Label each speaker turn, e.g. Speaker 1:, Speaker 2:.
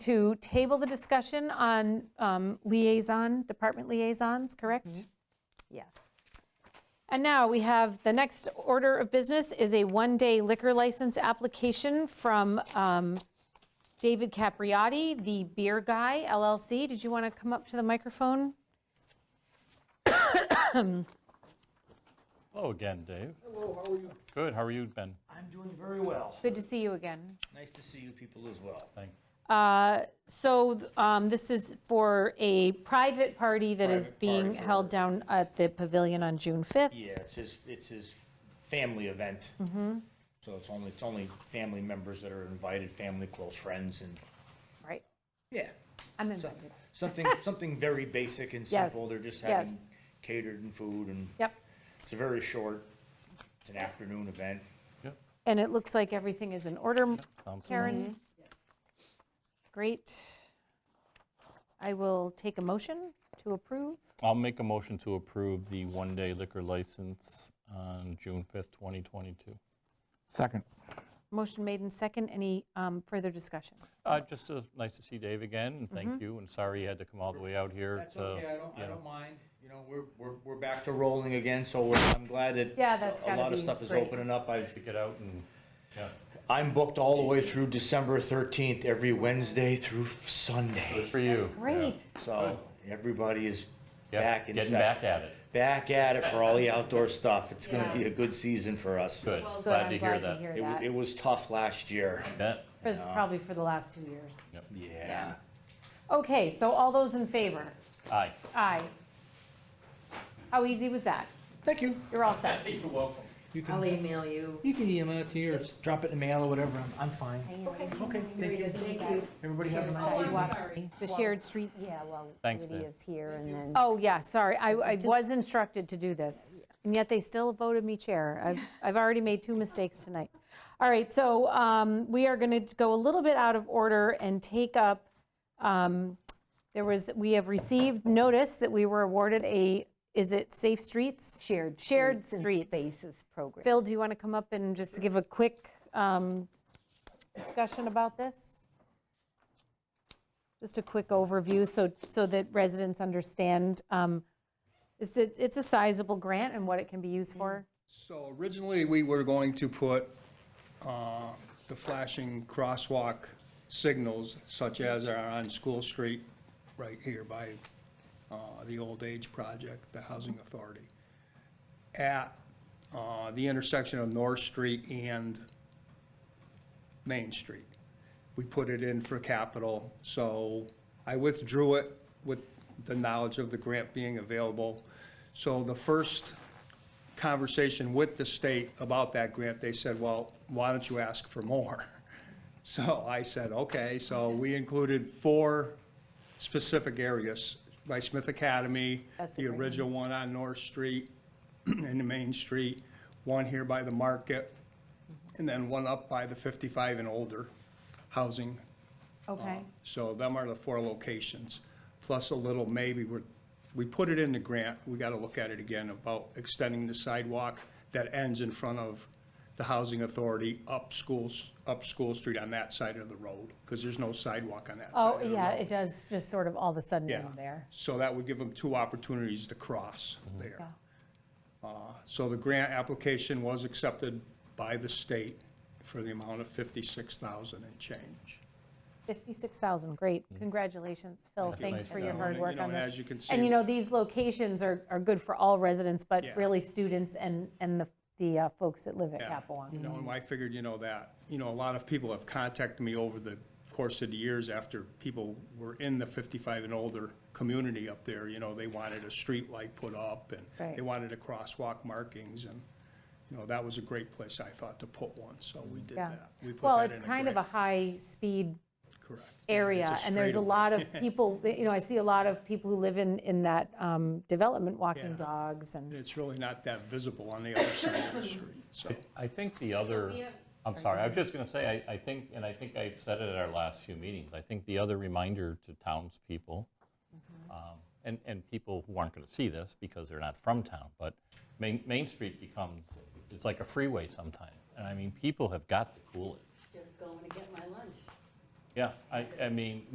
Speaker 1: to table the discussion on um, liaison, department liaisons, correct?
Speaker 2: Yes.
Speaker 1: And now we have, the next order of business is a one-day liquor license application from um, David Capriotti, the Beer Guy LLC. Did you want to come up to the microphone?
Speaker 3: Hello Oh, again, Dave.
Speaker 4: Hello, how are you?
Speaker 3: Good, how are you, Ben?
Speaker 4: I'm doing very well.
Speaker 1: Good to see you again.
Speaker 4: Nice to see you people as well.
Speaker 3: Thanks.
Speaker 1: Uh, So th- um, this is for a private party that is
Speaker 4: Private
Speaker 1: being
Speaker 4: party for-
Speaker 1: held down at the pavilion on June 5th.
Speaker 4: Yeah, it's his, it's his family event.
Speaker 1: Mm-hmm.
Speaker 4: So it's only, it's only family members that are invited, family, close friends, and,
Speaker 1: Right,
Speaker 4: yeah.
Speaker 1: I'm
Speaker 4: So-
Speaker 1: invited.
Speaker 4: Something, something very basic and
Speaker 1: Yes,
Speaker 4: simple. They're just having
Speaker 1: yes.
Speaker 4: catered and food, and
Speaker 1: Yep,
Speaker 4: it's a very short, it's an afternoon event.
Speaker 3: Yep,
Speaker 1: and it looks like everything is in order.
Speaker 3: sounds
Speaker 1: Karen? Great. I will take a motion to approve.
Speaker 3: I'll make a motion to approve the one-day liquor license on June 5th, 2022.
Speaker 5: Second.
Speaker 1: Motion made in second. Any um, further discussion?
Speaker 3: Uh, Just uh, nice to see Dave again, and thank
Speaker 1: Mm-hmm.
Speaker 3: you, and sorry you had to come all the way out here.
Speaker 4: That's
Speaker 3: to,
Speaker 4: okay, I don't,
Speaker 3: you
Speaker 4: I
Speaker 3: know.
Speaker 4: don't mind, you know, we're, we're, we're back to rolling again, so we're- I'm glad that
Speaker 1: Yeah, that's
Speaker 4: A
Speaker 1: gotta
Speaker 4: lot of
Speaker 1: be
Speaker 4: stuff is
Speaker 1: great.
Speaker 4: opening up. I've,
Speaker 3: To get out and, yeah,
Speaker 4: I'm booked all the way through December 13th, every Wednesday through
Speaker 3: good
Speaker 4: Sunday.
Speaker 3: for you. yeah.
Speaker 1: Great.
Speaker 4: So everybody is
Speaker 3: Yep,
Speaker 4: back in
Speaker 3: Getting
Speaker 4: session.
Speaker 3: back at it,
Speaker 4: Back at it for all the outdoor stuff. It's going
Speaker 1: Yeah.
Speaker 4: to be a good season for us.
Speaker 3: good,
Speaker 1: Good,
Speaker 3: glad
Speaker 1: I'm
Speaker 3: to hear
Speaker 1: glad to
Speaker 3: that.
Speaker 1: hear
Speaker 4: It, wa-
Speaker 1: that.
Speaker 4: it was tough last year.
Speaker 3: Bet.
Speaker 1: For- Probably for the last two years.
Speaker 4: Yeah.
Speaker 1: Okay, so all those in favor?
Speaker 3: Aye.
Speaker 1: Aye. How easy was that?
Speaker 4: Thank you.
Speaker 1: You're all set.
Speaker 3: You're welcome.
Speaker 4: You can,
Speaker 2: I'll email you.
Speaker 4: you can email it to you or just drop it in the mail or whatever. I'm, I'm fine.
Speaker 2: Okay,
Speaker 4: Okay, thank you.
Speaker 2: thank you.
Speaker 4: Everybody have a nice
Speaker 1: The shared streets.
Speaker 6: Yeah, well,
Speaker 3: Thanks,
Speaker 6: Woody
Speaker 3: Dan.
Speaker 6: is here, and then,
Speaker 1: Oh, yeah, sorry. I, I was instructed to do this, and yet they still voted me chair. I've, I've already made two mistakes tonight. All right, so um, we are going to go a little bit out of order and take up, um, there was, we have received notice that we were awarded a, is it Safe Streets?
Speaker 6: shared.
Speaker 1: Shared
Speaker 6: and
Speaker 1: streets.
Speaker 6: Spaces program.
Speaker 1: Phil, do you want to come up and just give a quick um, discussion about this? Just a quick overview, so, so that residents understand, um, it's, a- it's a sizable grant and what it can be used for.
Speaker 7: So originally, we were going to put uh, the flashing crosswalk signals such as are on School Street right here by uh, the Old Age Project, the Housing Authority, at uh, the intersection of North Street and Main Street. We put it in for capital, so I withdrew it with the knowledge of the grant being available. So the first conversation with the state about that grant, they said, well, why don't you ask for more? So I said, okay, so we included four specific areas, by Smith Academy,
Speaker 1: That's a
Speaker 7: the
Speaker 1: great
Speaker 7: original one on North Street and the Main Street, one here by the market, and then one up by the 55 and older housing. Mm-hmm.
Speaker 1: Okay,
Speaker 7: Um, So them are the four locations, plus a little maybe, we're, we put it in the grant, we gotta look at it again about extending the sidewalk that ends in front of the housing authority up schools, up School Street on that side of the road, because there's no sidewalk on that side
Speaker 1: oh,
Speaker 7: of the road.
Speaker 1: yeah, it does just sort of all of a sudden
Speaker 7: Yeah.
Speaker 1: in there.
Speaker 7: So that would give them two opportunities to cross
Speaker 3: Mm-hmm.
Speaker 7: there. Uh, So the grant application was accepted by the state for the amount of 56,000 and change.
Speaker 1: 56,000, great, congratulations, Phil,
Speaker 3: you.
Speaker 1: thanks
Speaker 3: Nice
Speaker 1: for your
Speaker 3: job.
Speaker 1: hard
Speaker 7: You
Speaker 1: work
Speaker 7: know,
Speaker 1: on
Speaker 7: and
Speaker 1: this.
Speaker 7: as you can
Speaker 1: And you
Speaker 7: see-
Speaker 1: know, these locations are, are good for all residents, but
Speaker 7: Yeah.
Speaker 1: really students and, and the, the uh, folks that live at
Speaker 7: Yeah.
Speaker 1: Capewalk.
Speaker 7: You know, and I figured, you know, that, you know, a lot of people have contacted me over the course of the years after people were in the 55 and older community up there, you know, they wanted a street light put up and
Speaker 1: Right.
Speaker 7: they wanted a crosswalk markings and, you know, that was a great place, I thought, to put one, so we did
Speaker 1: Yeah.
Speaker 7: that. We put
Speaker 1: Well,
Speaker 7: that
Speaker 1: it's
Speaker 7: in
Speaker 1: kind of a
Speaker 7: grant.
Speaker 1: high-speed
Speaker 7: Correct.
Speaker 1: area,
Speaker 7: It's
Speaker 1: and there's a
Speaker 7: straightaway.
Speaker 1: lot of people, you know, I see a lot of people who live in, in that um, development walking
Speaker 7: Yeah.
Speaker 1: dogs
Speaker 7: And
Speaker 1: and,
Speaker 7: it's really not that visible on the other side of the street, so.
Speaker 3: I think the other, I'm sorry, I was just going to say, I, I think, and I think I said it at our last few meetings, I think the other reminder to townspeople, um, and, and people who aren't going to see this because they're not from town, but Main, Main Street becomes, it's like a freeway sometime. And I mean, people have got to cool it.
Speaker 8: just going to get my lunch.
Speaker 3: Yeah, I, I mean,